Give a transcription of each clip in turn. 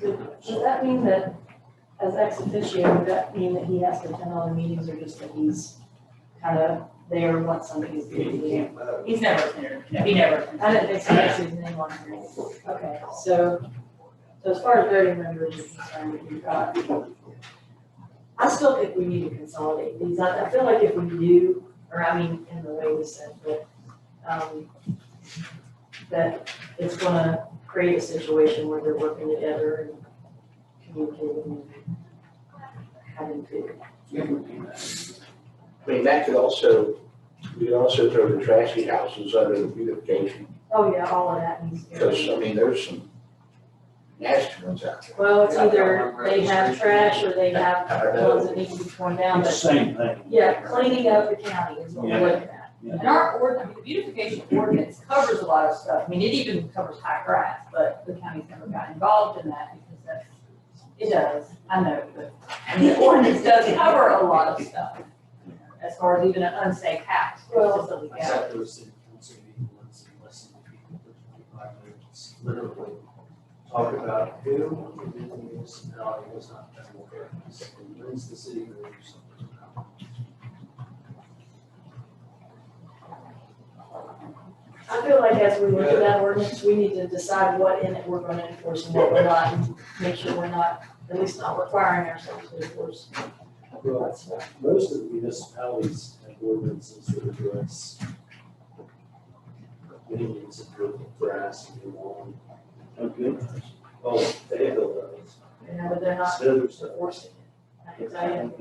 Does that mean that as ex officio, would that mean that he has to attend all the meetings or just that he's kind of there once somebody's leaving? He's never cleared, he never. I didn't think so, that's his name on here. Okay, so, so as far as voting members are concerned, we've got. I still think we need to consolidate these. I, I feel like if we do, or I mean, in the way we said, but, um, that it's gonna create a situation where they're working together and communicating and having to. I mean, that could also, you could also throw the trashy houses under the beautification, Oh, yeah, all of that needs to because, go. I mean, there's some nasty ones out there. Well, it's either they have trash or they have ones that need to be torn down, It's the but same thing. Yeah, cleaning up the county is what we're looking at. And our ord, I mean, the beautification ordinance covers a lot of stuff, I mean, it even covers high grass, but the county's never got involved in that because that's, it does, I know, but, I mean, the ordinance does cover a lot of stuff. As far as even an unsafe house, which is a I legality. sat through a city council meeting once and listened to people for twenty-five minutes, literally talk about who in the municipality was not done with their house and when's the city going to do something about I feel like as we look at that ordinance, we need to decide what in it we're gonna enforce and what we're not, and make sure we're not, at least not requiring ourselves to enforce. it. Well, most of the municipalities have ordinances that address millions of people grass and lawn. Okay. Oh, they have those. You know, but they're not Smithers does. enforcing it. I can tell you,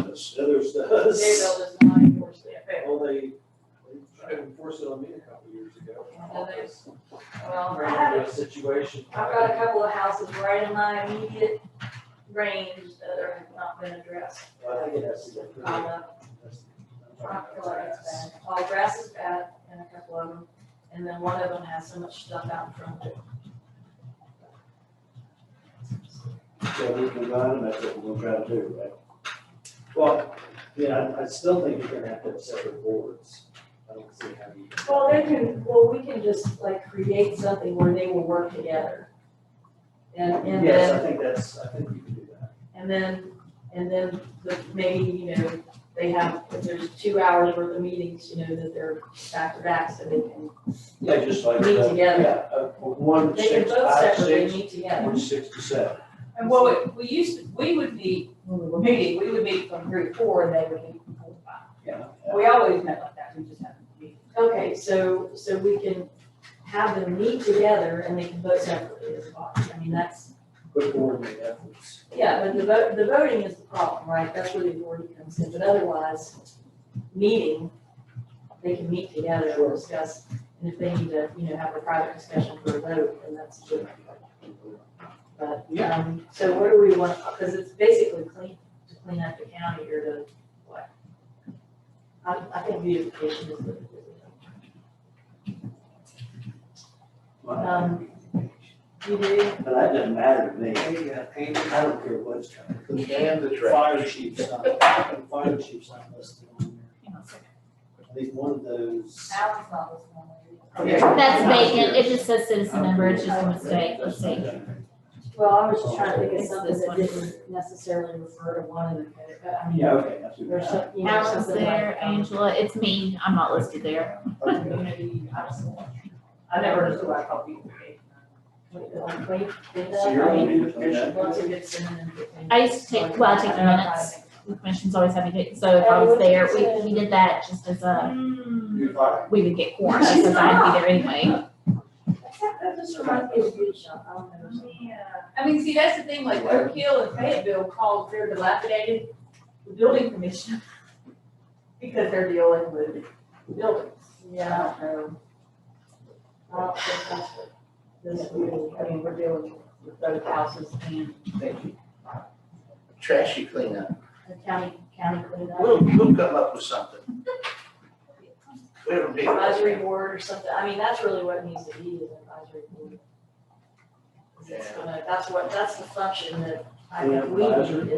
Okay, Smithers does. Maryville does not enforce it. Well, they, they tried to enforce it on me a couple years ago. Well, there's- Well, I Ran have, into a situation. I've got a couple of houses right in my immediate range that are not been addressed. I think it has to go through. I'm a That's- Um, I feel like it's bad. All grass is bad and a couple of them, and then one of them has so much stuff out in front of it. So we can buy them, that's what we're gonna try to do, right? Well, yeah, I- I still think you're gonna have to have separate boards. I don't see how you. Well, they can, well, we can just like create something where they will work together. And, and Yes, I then, think that's, I think you can do that. and then, and then the, maybe, you know, they have, if there's two hours worth of meetings, you know, that they're back to back, so they can, Yeah, just like. Meet uh, together. Yeah, uh, from one, to they can six, vote five, separately, six, meet together. one, six to seven. And well, we used, to- we would meet, when we were meeting, we would meet from three to four and they would meet from four to five. Yeah. We always met like that, we just haven't meeting. Okay, so, so we can have them meet together and they can vote separately as well. I mean, that's, Quick coordinate efforts. Yeah, but the vote, the voting is the problem, right? That's where the authority comes in, but otherwise, meeting, they can meet together and discuss, and if they need to, you know, have a private discussion for a vote, then that's different. But, um, so what do we want, because it's basically clean, to clean up the county or to what? I, I think beautification is the. Um, you do, But that doesn't matter to me. I don't care what's coming. And the trash. Fire chief's not, fire chief's not listed on Hang on a second. there. I think one of those. Alan's not listening. Okay. That's vacant, it just says citizen member, it's just a mistake, mistake. well, I was just trying to think of something that didn't necessarily refer to one of the, but I mean. Yeah, okay, that's what. Or some, you know, Alan's something like. um, there, um, Angela, it's me, I'm not listed there. Community, I was the one. I never understood why I called beautification. Like, wait, did So you're that, on I mean, beautification? once it gets in and. everything. I used to take, well, I take the minutes, the commission's always having to, so if I was there, we, he did that just as a, Hmm. You fire. we would get quorum, because I had to be there anyway. That just reminds me of beauty shop, I don't know. I mean, see, that's the thing, like Oak Hill and Fayetteville called their dilapidated the building commission because they're dealing with buildings. Yeah, I don't know. I don't think that's what this really, I mean, we're dealing with both houses and Trashy cleanup. the county, county cleanup, We'll, we'll come up with something. We don't need. advisory board or something, I mean, that's really what it needs to be, is an advisory board. It's gonna- that's what, that's the function that I think we Advisory? need,